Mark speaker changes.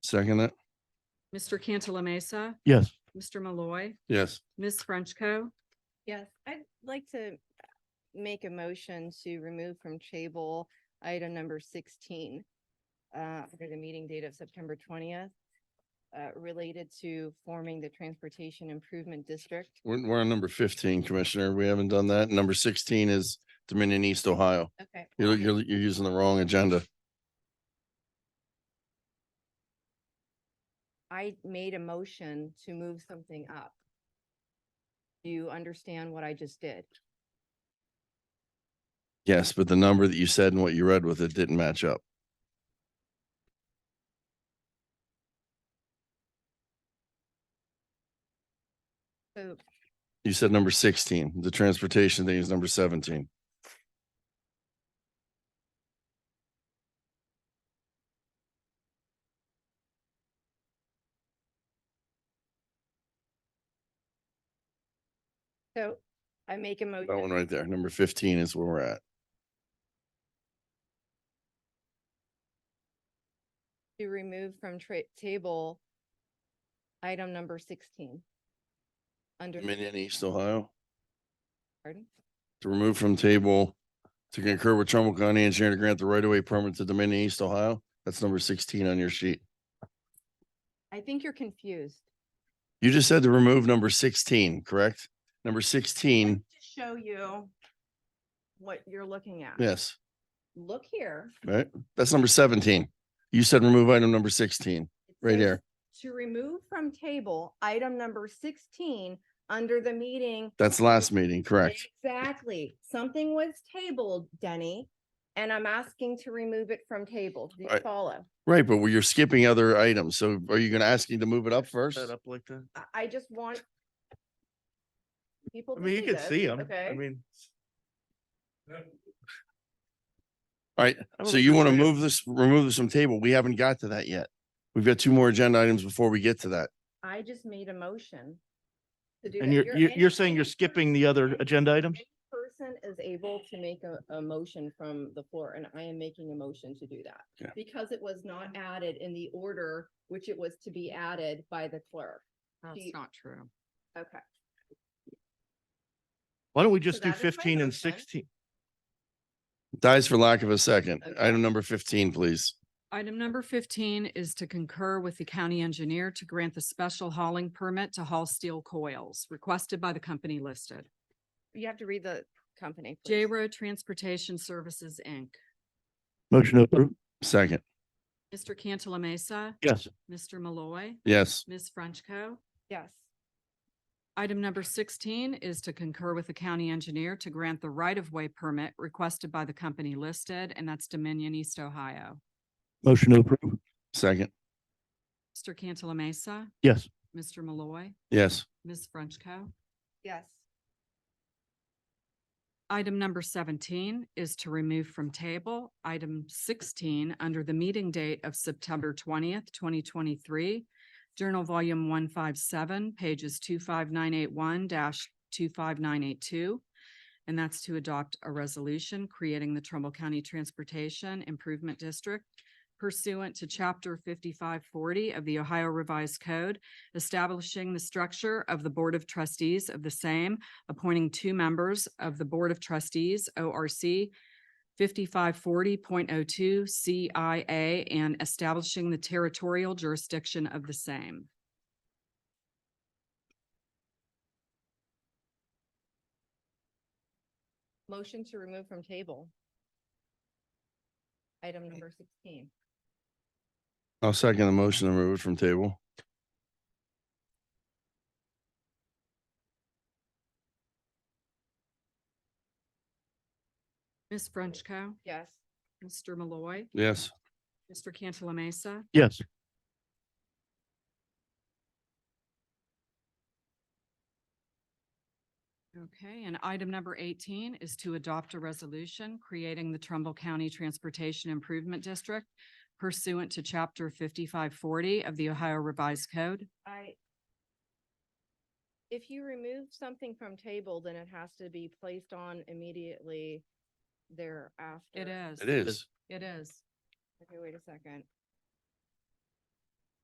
Speaker 1: Second it.
Speaker 2: Mr. Cantala Mesa,
Speaker 3: Yes.
Speaker 2: Mr. Malloy,
Speaker 1: Yes.
Speaker 2: Ms. Frenchco.
Speaker 4: Yes, I'd like to make a motion to remove from table item number sixteen uh, under the meeting date of September twentieth uh, related to forming the Transportation Improvement District.
Speaker 1: We're, we're on number fifteen, Commissioner. We haven't done that. Number sixteen is Dominion East, Ohio.
Speaker 4: Okay.
Speaker 1: You're, you're, you're using the wrong agenda.
Speaker 4: I made a motion to move something up. Do you understand what I just did?
Speaker 1: Yes, but the number that you said and what you read with it didn't match up.
Speaker 4: So
Speaker 1: You said number sixteen. The transportation thing is number seventeen.
Speaker 4: So I make a motion.
Speaker 1: That one right there. Number fifteen is where we're at.
Speaker 4: To remove from tra- table item number sixteen. Under,
Speaker 1: Dominion East, Ohio.
Speaker 4: pardon?
Speaker 1: to remove from table to concur with Trumbull County Engineer to grant the right-of-way permit to Dominion East, Ohio. That's number sixteen on your sheet.
Speaker 4: I think you're confused.
Speaker 1: You just said to remove number sixteen, correct? Number sixteen,
Speaker 4: To show you what you're looking at.
Speaker 1: yes,
Speaker 4: Look here.
Speaker 1: right? That's number seventeen. You said remove item number sixteen.
Speaker 4: It
Speaker 1: Right
Speaker 4: says
Speaker 1: here.
Speaker 4: To remove from table item number sixteen under the meeting.
Speaker 1: That's last meeting, correct?
Speaker 4: Exactly. Something was tabled, Denny, and I'm asking to remove it from table. Do you
Speaker 1: Right.
Speaker 4: follow?
Speaker 1: Right, but you're skipping other items. So are you gonna ask me to move it up first?
Speaker 3: Set up like that.
Speaker 4: I, I just want people
Speaker 3: I
Speaker 4: to
Speaker 3: mean, you could
Speaker 4: this,
Speaker 3: see them. I
Speaker 4: Okay.
Speaker 3: mean.
Speaker 1: Alright, So you want to move this, remove this from table? We haven't got to that yet. We've got two more agenda items before we get to that.
Speaker 4: I just made a motion. to do
Speaker 3: And
Speaker 4: that.
Speaker 3: you're, you're, you're saying
Speaker 4: any
Speaker 3: you're
Speaker 4: person-
Speaker 3: skipping the other
Speaker 4: any-
Speaker 3: agenda items?
Speaker 4: any Person is able to make a, a motion from the floor and I am making a motion to do that.
Speaker 1: Yeah.
Speaker 4: Because it was not added in the order which it was to be added by the clerk.
Speaker 2: That's
Speaker 4: you-
Speaker 2: not true.
Speaker 4: Okay.
Speaker 3: Why don't we just
Speaker 4: So
Speaker 3: do
Speaker 4: that is my
Speaker 3: fifteen and
Speaker 4: motion.
Speaker 3: sixteen?
Speaker 1: Dies for lack of a second.
Speaker 4: Okay.
Speaker 1: Item number fifteen, please.
Speaker 2: Item number fifteen is to concur with the county engineer to grant the special hauling permit to haul steel coils requested by the company listed.
Speaker 4: You have to read the company.
Speaker 2: J
Speaker 4: please.
Speaker 2: Road Transportation Services, Inc.
Speaker 3: Motion to approve.
Speaker 1: Second,
Speaker 2: Mr. Cantala Mesa,
Speaker 3: Yes.
Speaker 2: Mr. Malloy,
Speaker 1: yes.
Speaker 2: Ms. Frenchco.
Speaker 4: Yes.
Speaker 2: Item number sixteen is to concur with the county engineer to grant the right-of-way permit requested by the company listed, and that's Dominion East, Ohio.
Speaker 3: Motion to approve.
Speaker 1: Second,
Speaker 2: Mr. Cantala Mesa,
Speaker 3: Yes.
Speaker 2: Mr. Malloy,
Speaker 1: yes.
Speaker 2: Ms. Frenchco.
Speaker 4: Yes.
Speaker 2: Item number seventeen is to remove from table item sixteen under the meeting date of September twentieth, twenty twenty-three. Journal Volume one five seven, pages two five nine eight one two five nine eight two. And that's to adopt a resolution creating the Trumbull County Transportation Improvement District pursuant to chapter fifty-five forty of the Ohio Revised Code, establishing the structure of the Board of Trustees of the same appointing two members of the Board of Trustees, ORC fifty-five forty point oh two CIA and establishing the territorial jurisdiction of the same.
Speaker 4: Motion to remove from table. Item number sixteen.
Speaker 1: I'll second the motion to remove it from table.
Speaker 2: Ms. Frenchco.
Speaker 4: Yes.
Speaker 2: Mr. Malloy.
Speaker 1: Yes.
Speaker 2: Mr. Cantala Mesa.
Speaker 3: Yes.
Speaker 2: Okay, and item number eighteen is to adopt a resolution creating the Trumbull County Transportation Improvement District pursuant to chapter fifty-five forty of the Ohio Revised Code.
Speaker 4: I. If you remove something from table, then it has to be placed on immediately thereafter.
Speaker 2: It is.
Speaker 1: It is.
Speaker 2: It is.
Speaker 4: Okay, wait a second.